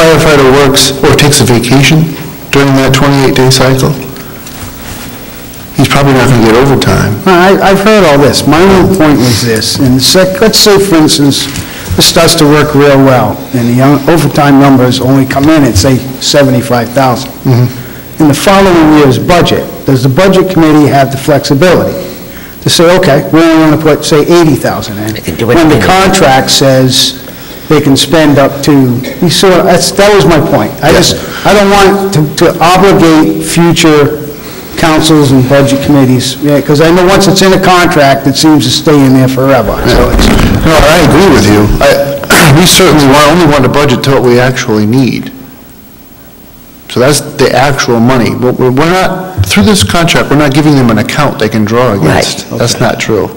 firefighter works or takes a vacation during that 28-day cycle, he's probably not going to get overtime. I, I've heard all this. My only point was this, and the sec, let's say, for instance, this starts to work real well, and the un- overtime numbers only come in at, say, seventy-five thousand. In the following year's budget, does the budget committee have the flexibility to say, okay, we only want to put, say, eighty thousand in? They can do it When the anyway. contract says they can spend up to, you see, what- that's, that was my point. I just, I don't want to- to obligate future councils and budget committees, because I know once it's in a contract, it seems to stay in there forever, so it's... No, I agree with you. I- We certainly want- only want to budget to what we actually need. So that's the actual money. But we're we're not, through this contract, we're not giving them an account they can draw against. That's not true.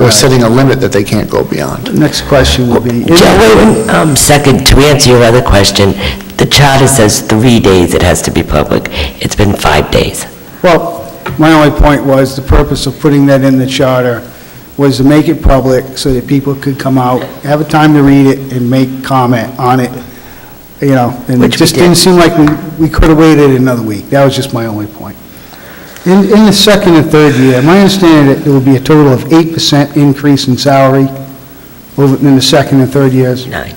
We're setting a limit that they can't go beyond. Next question will be... Joe, wait, um, second, to answer your other question, the charter says three days it has to be public. It's been five days. Well, my only point was, the purpose of putting that in the charter was to make it public so that people could come out, have a time to read it, and make comment on it, you know, and it Which we just didn't seem like we, we could have waited another week. That was just my only point. In, in the second and third year, my understanding that there will be a total of 8% increase in salary over, in the second and third years. Nine.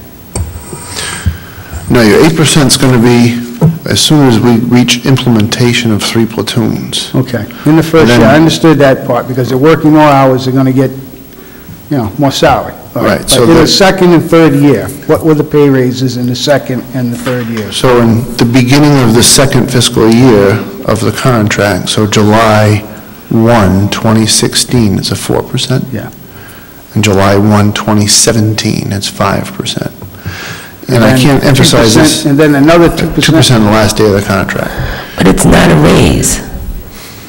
No, your 8% is going to be as soon as we reach implementation of three platoons. Okay. In the first year, I understood that part, because they're working more hours, they're going to get, you know, more salary. All Right, so But in the- the second and third year, what were the pay raises in the second and the third years? So in the beginning of the second fiscal year of the contract, so July 1, 2016, it's a 4%? Yeah. And July 1, 2017, it's 5%. And I then can't emphasize 2%, this, 2% And then another 2%. the last day of the contract. But it's not a raise.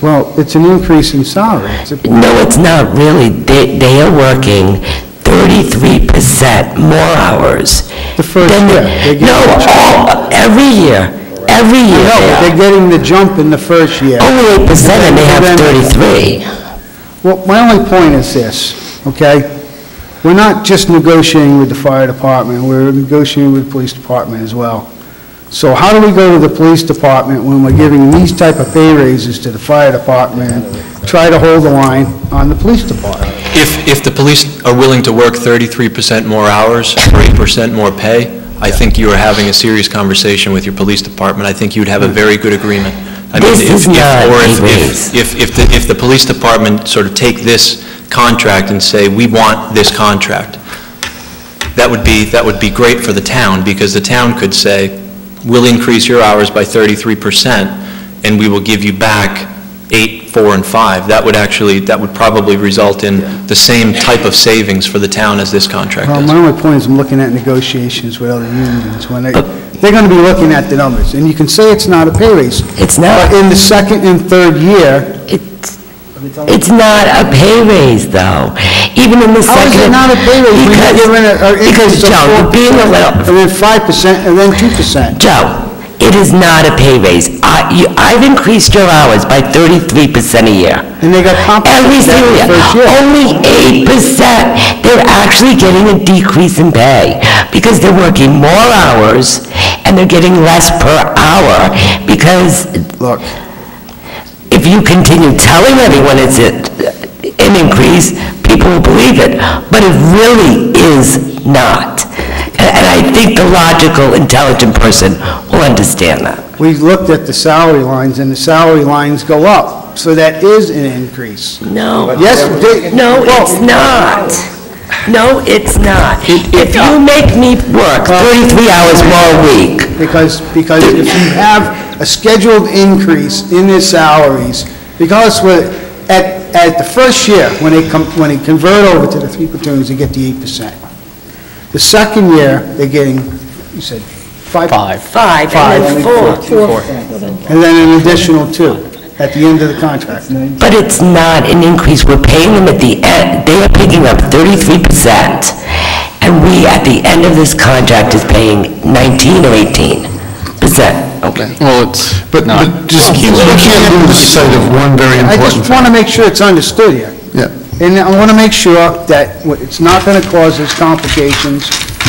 Well, it's an increase in salary. It's a- No, it's not really. They, they are working thirty-three percent more hours. The first than year, the- they get- No, all, every year, every No, year but they they're are. getting the jump in the first year. Only eight percent and they have And then- thirty-three. Well, my only point is this, okay? We're not just negotiating with the fire department, we're negotiating with the police department as well. So how do we go to the police department when we're giving these type of pay raises to the fire department, try to hold the line on the police department? If, if the police are willing to work 33% more hours for 8% more pay, I think you are having a serious conversation with your police department. I think you'd have a very good agreement. I mean, This if- is if- not or a if- raise. If, if, if the, if the police department sort of take this contract and say, "We want this contract," that would be, that would be great for the town, because the town could say, "We'll increase your hours by 33%, and we will give you back eight, four, and five." That would actually, that would probably result in the same type of savings for the town as this contract Well, is. my only point is I'm looking at negotiations with other unions, when they, they're gonna be looking at the numbers, and you can say it's not a pay raise, It's but not, in the second and third year, it's, it's not a pay raise though. Even in the how is it second. not a pay raise when you're Because- giving a- an Because, increase of Joe, you're being a 4%, little, And then five percent, and then two percent. Joe, it is not a pay raise. I, you, I've increased your hours by thirty-three percent a year. And they got Every compensated that single year, the first year. only eight percent. They're actually getting a decrease in pay because they're working more hours and they're getting less per hour because Look, if you continue telling everyone it's a- an increase, people will believe it, but it really is not. And and I think the logical, intelligent person will understand that. we looked at the salary lines, and the salary lines go up, so that is an increase. No. Yes, they- No, it's not. No, it's not. If you make me work 33 hours more a week, Because, because if you have a scheduled increase in their salaries, because we're, at, at the first year, when they come, when they convert over to the three platoons, they get the eight percent. The second year, they're getting, you said, five? Five. five, and then four. And then an additional two at the end of the contract. But it's not an increase, we're paying them at the end, they are picking up 33%, and we, at the end of this contract, is paying 19 or 18%. Okay. Well, it's But not. but just, we can't lose sight of one very I important just want fact. to make sure it's understood here. Yeah. And I want to make sure that wh- it's not going to cause us complications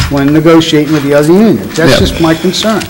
when negotiating with the other unions. That's Yeah. just my concern.